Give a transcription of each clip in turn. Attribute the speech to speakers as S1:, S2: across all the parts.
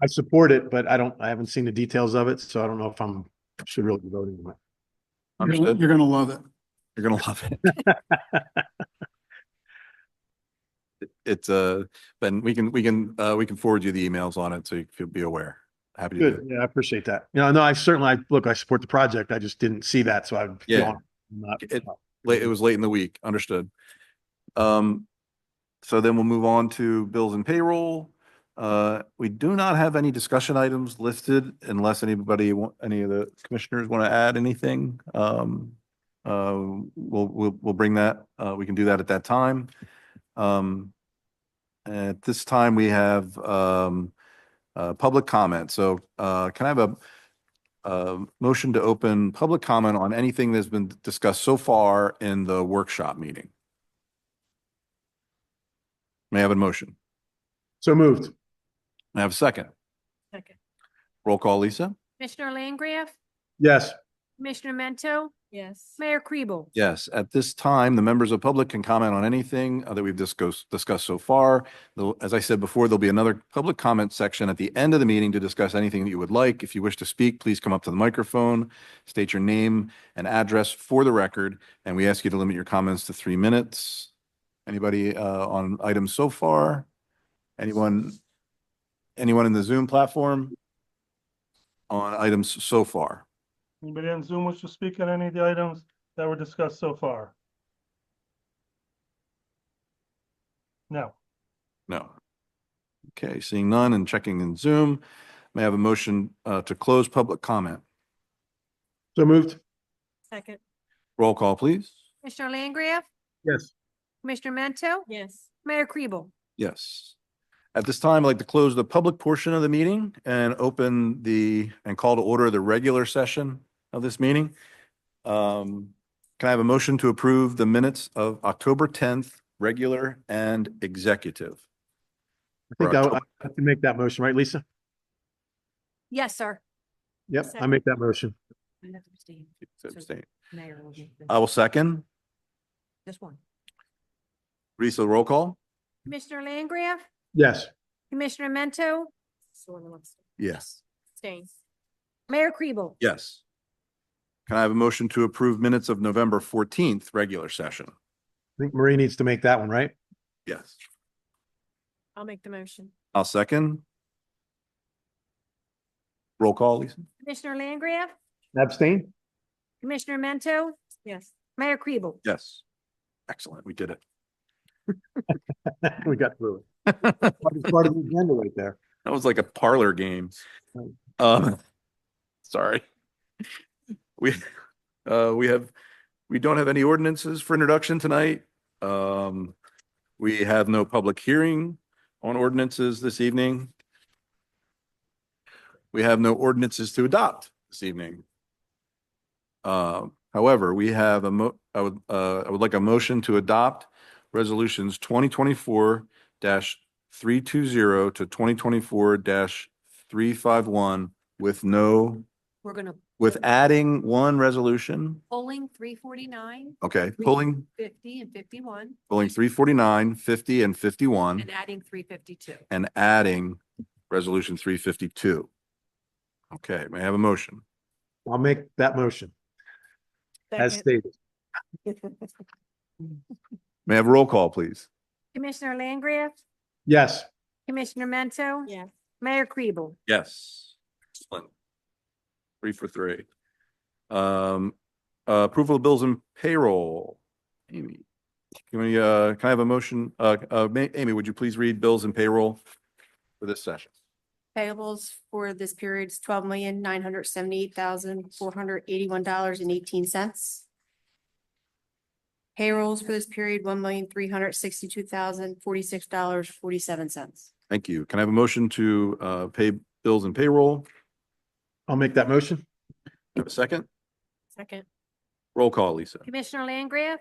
S1: I support it, but I don't, I haven't seen the details of it, so I don't know if I'm, should really be voting
S2: You're
S1: on it.
S2: gonna-
S3: Understood.
S2: You're gonna love it.
S3: You're gonna love it. It's uh, Ben, we can, we can, uh, we can forward you the emails on it so you can be aware. Happy to do
S1: Good,
S3: it.
S1: yeah, I appreciate that. You know, no, I certainly, I, look, I support the project. I just didn't see that, so I.
S3: Yeah.
S1: Not,
S3: It- Late, it
S1: Mm-hmm.
S3: was late in the week, understood. Um, so then we'll move on to bills and payroll. Uh, we do not have any discussion items listed unless anybody, wa- any of the commissioners want to add anything. Um, uh, we'll, we'll, we'll bring that, uh, we can do that at that time. Um, at this time, we have, um, uh, public comment. So, uh, can I have a, uh, motion to open public comment on anything that's been discussed so far in the workshop meeting. May I have a motion?
S1: so moved.
S3: May I have a second?
S4: Second.
S3: Roll call, Lisa?
S5: Commissioner Langgraf?
S1: Yes,
S5: Commissioner Mento?
S4: Yes.
S5: Mayor Kribel?
S3: Yes, at this time, the members of public can comment on anything uh, that we've discussed, discussed so far. Though, As I said before, there'll be another public comment section at the end of the meeting to discuss anything that you would like. If you wish to speak, please come up to the microphone, state your name and address for the record, and we ask you to limit your comments to three minutes. Anybody uh, on items so far? Anyone? Anyone in the Zoom platform? On items so far?
S6: Anybody on Zoom wish to speak on any of the items that were discussed so far? No.
S3: No. Okay, seeing none and checking in Zoom, may I have a motion uh, to close public comment?
S1: so moved.
S4: Second.
S3: Roll call, please.
S5: Commissioner Langgraf?
S1: Yes,
S5: Commissioner Mento?
S4: Yes.
S5: Mayor Kribel?
S3: Yes. At this time, I'd like to close the public portion of the meeting and open the, and call to order the regular session of this meeting. Um, Can I have a motion to approve the minutes of October 10th, regular and executive?
S1: I think I, I have to make that motion, right, Lisa?
S5: Yes, sir.
S1: Yep, I make that motion.
S3: Abstain.
S4: Mayor. will be-
S3: I will second.
S4: Just one.
S3: Lisa, roll call?
S5: Commissioner Langgraf?
S1: Yes,
S5: Commissioner Mento?
S3: Yes.
S5: Stains. Mayor Kribel?
S3: Yes. Can I have a motion to approve minutes of November fourteenth, regular session?
S1: I think Marie needs to make that one, right?
S3: Yes.
S5: I'll make the motion.
S3: I'll second. Roll call, Lisa?
S5: Commissioner Langgraf?
S1: Abstain?
S5: Commissioner Mento?
S4: Yes.
S5: Mayor Kribel?
S3: Yes. Excellent, we did it.
S1: We got through
S3: That
S1: it. It's Part of the agenda right there.
S3: was like a parlor game.
S1: Right.
S3: Um, sorry. We, uh, we have, we don't have any ordinances for introduction tonight. Um, we have no public hearing on ordinances this evening. We have no ordinances to adopt this evening. Uh, however, we have a mo, I would, uh, I would like a motion to adopt resolutions twenty twenty-four three two zero to twenty twenty-four three five one with no,
S4: We're gonna.
S3: with adding one resolution.
S4: Polling three forty-nine,
S3: Okay, pulling,
S4: fifty and fifty-one
S3: pulling 349, 50, and fifty-one.
S4: and adding three fifty-two.
S3: and adding resolution three fifty-two. Okay, may I have a motion?
S1: I'll make that motion as stated.
S3: May I have a roll call, please?
S5: Commissioner Langgraf?
S1: Yes,
S5: Commissioner Mento?
S4: Yes.
S5: Mayor Kribel?
S3: Yes. Excellent. Three for three. Um, uh, approval of bills and payroll. Amy, can we, uh, can I have a motion? Uh, uh, Ma- Amy, would you please read bills and payroll for this session?
S7: Payables for this period is twelve million, nine hundred seventy-eight thousand, four hundred eighty-one dollars and eighteen cents. Payrolls for this period, one million, three hundred sixty-two thousand, forty-six dollars, forty-seven cents.
S3: Thank you. Can I have a motion to, uh, pay bills and payroll?
S1: I'll make that motion.
S3: Have a second?
S4: Second.
S3: Roll call, Lisa.
S5: Commissioner Langgraf?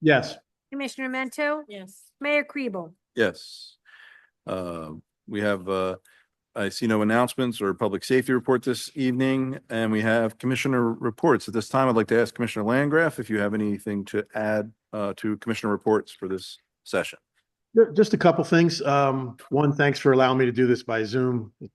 S1: Yes,
S5: Commissioner Mento?
S4: Yes.
S5: Mayor Kribel?
S3: Yes. Uh, We have, uh, I see no announcements or public safety report this evening, and we have commissioner reports. At this time, I'd like to ask Commissioner Landgraf if you have anything to add uh, to commissioner reports for this session.
S1: Ju- just a couple things. Um, one, thanks for allowing me to do this by Zoom. It